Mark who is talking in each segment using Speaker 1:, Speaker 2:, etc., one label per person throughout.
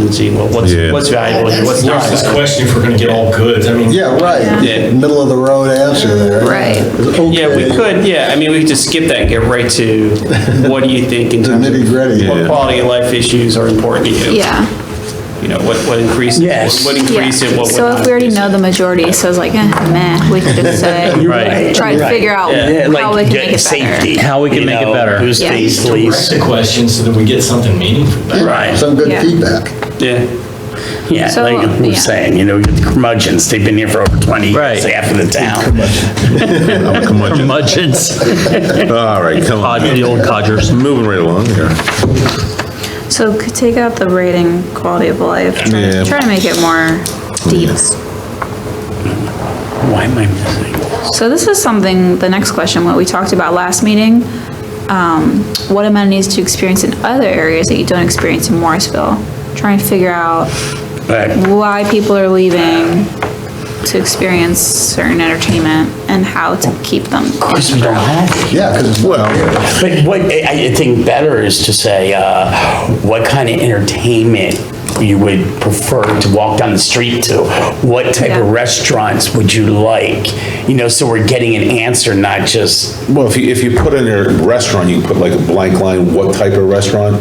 Speaker 1: and seeing what- what's,
Speaker 2: Yeah.
Speaker 1: what's valuable and what's not.
Speaker 3: There's this question if we're gonna get all goods, I mean.
Speaker 4: Yeah, right.
Speaker 1: Yeah.
Speaker 4: Middle of the road answer there.
Speaker 5: Right.
Speaker 1: Yeah, we could, yeah, I mean, we could just skip that and get right to what do you think in
Speaker 4: The
Speaker 1: terms
Speaker 4: nitty
Speaker 1: of
Speaker 4: gritty.
Speaker 1: what
Speaker 2: Yeah.
Speaker 1: quality of life issues are important to you?
Speaker 5: Yeah,
Speaker 1: You know, what, what increases,
Speaker 6: Yes.
Speaker 1: what
Speaker 5: yeah.
Speaker 1: increase it, what would
Speaker 5: So if
Speaker 1: not
Speaker 5: we already
Speaker 1: increase it.
Speaker 5: know the majority, so it's like, eh, meh, we could just say,
Speaker 1: Right.
Speaker 5: try to figure out
Speaker 6: Yeah,
Speaker 5: how we can
Speaker 6: like
Speaker 5: make
Speaker 6: get
Speaker 5: it better.
Speaker 6: safety.
Speaker 7: How we can
Speaker 6: you
Speaker 7: make it
Speaker 6: know,
Speaker 7: better.
Speaker 6: Who's
Speaker 5: Yeah.
Speaker 6: face
Speaker 3: Direct
Speaker 6: least,
Speaker 3: the question so that we get something meaningful back.
Speaker 6: right,
Speaker 4: Some good
Speaker 5: Yeah.
Speaker 4: feedback.
Speaker 1: Yeah,
Speaker 6: yeah,
Speaker 5: So,
Speaker 6: like we
Speaker 5: yeah.
Speaker 6: we're saying, you know, you get the curmudgeons, they've been here for over 20 years,
Speaker 7: Right.
Speaker 6: half of the town.
Speaker 2: Curmudgeon.
Speaker 7: Curmudgeons,
Speaker 2: All right, come
Speaker 7: Cod- the
Speaker 2: on.
Speaker 7: old codgers.
Speaker 2: Moving right along here.
Speaker 5: So could take out the rating, quality of life, try
Speaker 2: Yeah.
Speaker 5: to- try to make it more deep.
Speaker 6: Why am I missing?
Speaker 5: So this is something, the next question, what we talked about last meeting. Um, what amenities to experience in other areas that you don't experience in Morrisville? Trying to figure out
Speaker 6: Right,
Speaker 5: why people are leaving to experience certain entertainment and how to keep them.
Speaker 6: course we don't have it.
Speaker 4: Yeah, because, well,
Speaker 6: But what, I, I think better is to say, uh, what kind of entertainment you would prefer to walk down the street to? What type of
Speaker 5: Yeah.
Speaker 6: restaurants would you like? You know, so we're getting an answer, not just,
Speaker 2: Well, if you, if you put in a restaurant, you can put like a blank line, what type of restaurant?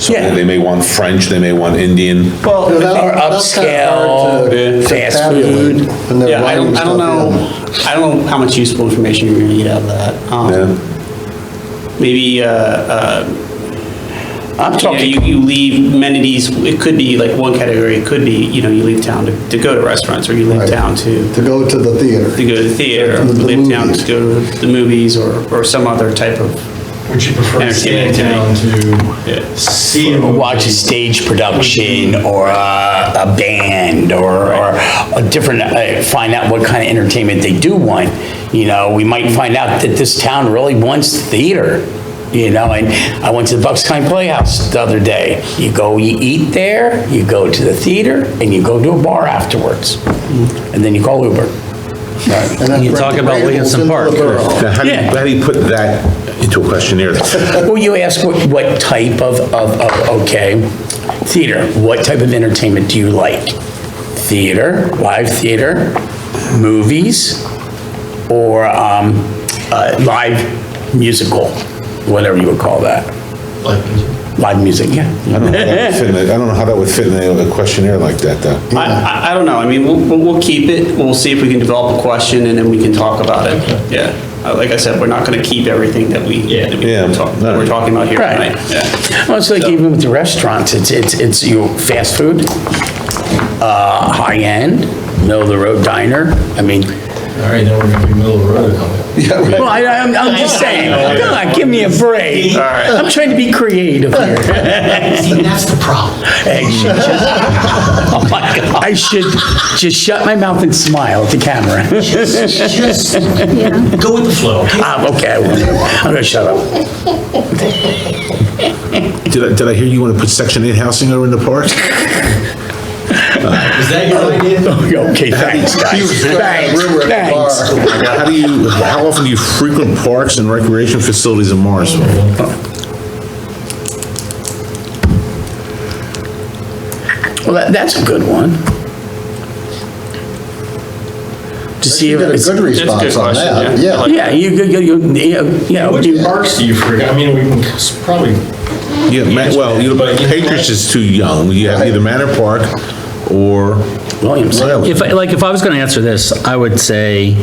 Speaker 2: So
Speaker 6: Yeah.
Speaker 2: they may want French, they may want Indian.
Speaker 6: well,
Speaker 4: that-
Speaker 6: or
Speaker 4: that's kinda hard
Speaker 6: upscale,
Speaker 4: to-
Speaker 6: fast
Speaker 4: tabulate
Speaker 6: food.
Speaker 4: when they're
Speaker 1: yeah, I
Speaker 4: writing
Speaker 1: don't, I don't
Speaker 4: stuff
Speaker 1: know,
Speaker 4: down.
Speaker 1: I don't know how much useful information you're gonna get out of that.
Speaker 2: Yeah.
Speaker 1: Um, Maybe, uh,
Speaker 6: I'm
Speaker 1: you know,
Speaker 6: talking
Speaker 1: you, you leave amenities, it could be like one category, it could be, you know, you leave town to, to go to restaurants, or you leave
Speaker 4: Right.
Speaker 1: town to,
Speaker 4: to go to the
Speaker 1: to
Speaker 4: theater.
Speaker 1: go to the theater, or
Speaker 4: The
Speaker 1: leave town
Speaker 4: movies.
Speaker 1: to go to the movies, or, or some other type of,
Speaker 3: Would you prefer to stay in town
Speaker 1: Yeah.
Speaker 3: to see? a movie?
Speaker 6: watch a stage production or a, a band or, or a different, uh, find out what kind of entertainment they do want. You know, we might find out that this town really wants theater, you know, and I went to the Bucks County Playhouse the other day. You go, you eat there, you go to the theater, and you go to a bar afterwards. And then you call Uber. Right.
Speaker 4: And that's
Speaker 7: You talk about
Speaker 4: reputable
Speaker 7: Williamson
Speaker 4: into the
Speaker 7: Park.
Speaker 4: borough.
Speaker 2: Now, how do you,
Speaker 6: Yeah.
Speaker 2: how do you put that into a questionnaire?
Speaker 6: Well, you ask what, what type of, of, of, okay, theater, what type of entertainment do you like? Theater, live theater, movies, or, um, uh, live musical, whatever you would call that.
Speaker 3: Like,
Speaker 6: Live music,
Speaker 2: I
Speaker 6: yeah.
Speaker 2: don't know how that would fit in a- I don't know how that would fit in a questionnaire like that, though.
Speaker 1: I, I, I don't know, I mean, we'll, we'll we'll keep it, we'll see if we can develop a question, and then we can talk about it, yeah. Uh, Like I said, we're not gonna keep everything that we, that we
Speaker 2: Yeah.
Speaker 1: talk- that we're talking about here
Speaker 6: Right.
Speaker 1: tonight, yeah.
Speaker 6: Well, it's like even with the restaurants, it's, it's, it's your fast food, uh, high-end, middle-of-the-road diner, I mean,
Speaker 3: all right, now we're gonna be middle of the road. aren't we?
Speaker 6: Well, I, I'm, I'm just saying, come on, give me a break. I'm trying to be creative here.
Speaker 3: See, that's the problem.
Speaker 6: Hey, she just- Oh my God. I should just shut my mouth and smile at the camera.
Speaker 3: Just go with the flow. okay?
Speaker 6: Ah, okay, I will. I'm gonna shut up.
Speaker 2: Did I, did I hear you want to put section eight housing over in the park?
Speaker 3: Is that your idea?
Speaker 6: Oh, Okay, thanks, guys. Thanks,
Speaker 4: Rumor at the
Speaker 6: thanks.
Speaker 4: bar.
Speaker 2: Oh How do you, how often do you frequent parks and recreation facilities in Morrisville?
Speaker 6: Well, that, that's a good one. To see
Speaker 4: You
Speaker 6: if
Speaker 4: get a
Speaker 6: it's,
Speaker 4: good response on
Speaker 1: question,
Speaker 4: that,
Speaker 1: yeah.
Speaker 4: yeah.
Speaker 6: yeah, you, you, you, you, you know,
Speaker 3: Which
Speaker 6: you-
Speaker 3: parks do you forget? I mean, we can s- probably,
Speaker 2: Yeah, Ma- well, you know, Patriots is too young. You have either Manor Park or
Speaker 6: Williams.
Speaker 2: Riley.
Speaker 7: If, I- like, if I was gonna answer this, I would say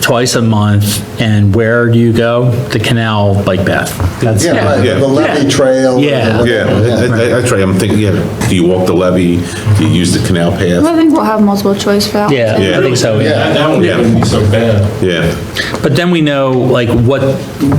Speaker 7: twice a month, and where do you go? The canal bike path. That's,
Speaker 4: Yeah, right,
Speaker 2: Yeah.
Speaker 4: the levy trail.
Speaker 7: Yeah.
Speaker 2: Yeah, that- that- that's right, I'm thinking, yeah, do you walk the levee? Do you use the canal
Speaker 5: I
Speaker 2: path?
Speaker 5: think we'll have multiple choice for that.
Speaker 7: yeah, I think so, yeah.
Speaker 3: that that one
Speaker 2: Yeah.
Speaker 3: wouldn't be so bad.
Speaker 2: Yeah,
Speaker 7: But then we know, like, what,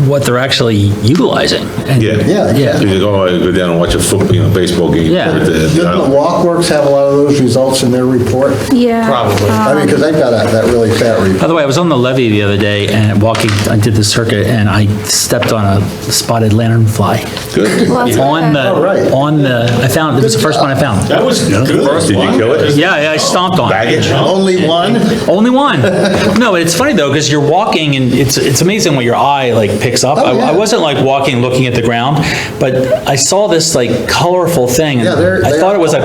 Speaker 7: what they're actually utilizing. and-
Speaker 2: yeah.
Speaker 4: Yeah,
Speaker 7: Yeah.
Speaker 2: You go, oh, I go down and watch a football, you know, baseball game. uh,
Speaker 7: Yeah.
Speaker 2: or the-
Speaker 4: Didn't the Walk Works have a lot of those results in their report?
Speaker 5: Yeah.
Speaker 3: Probably.
Speaker 4: I mean, because they've got that that really fat
Speaker 7: By
Speaker 4: report.
Speaker 7: the way, I was on the levee the other day and walking, I did the circuit and I stepped on a spotted lanternfly.
Speaker 2: Good.
Speaker 5: Well, that's
Speaker 7: On
Speaker 5: okay.
Speaker 4: Oh, right.
Speaker 7: the, on the, I found, it was the first one I found.
Speaker 3: That was good.
Speaker 2: Did you kill it?
Speaker 7: Yeah, yeah, I stomped on it.
Speaker 2: Baggage?
Speaker 4: Only one?
Speaker 7: Only one. No, it's funny though, because you're walking and it's, it's amazing what your eye like picks up. I
Speaker 4: Oh, yeah.
Speaker 7: I wasn't like walking, looking at the ground, but I saw this like colorful thing. and
Speaker 4: Yeah, they're-
Speaker 7: I
Speaker 4: they
Speaker 7: thought
Speaker 4: are
Speaker 7: it was a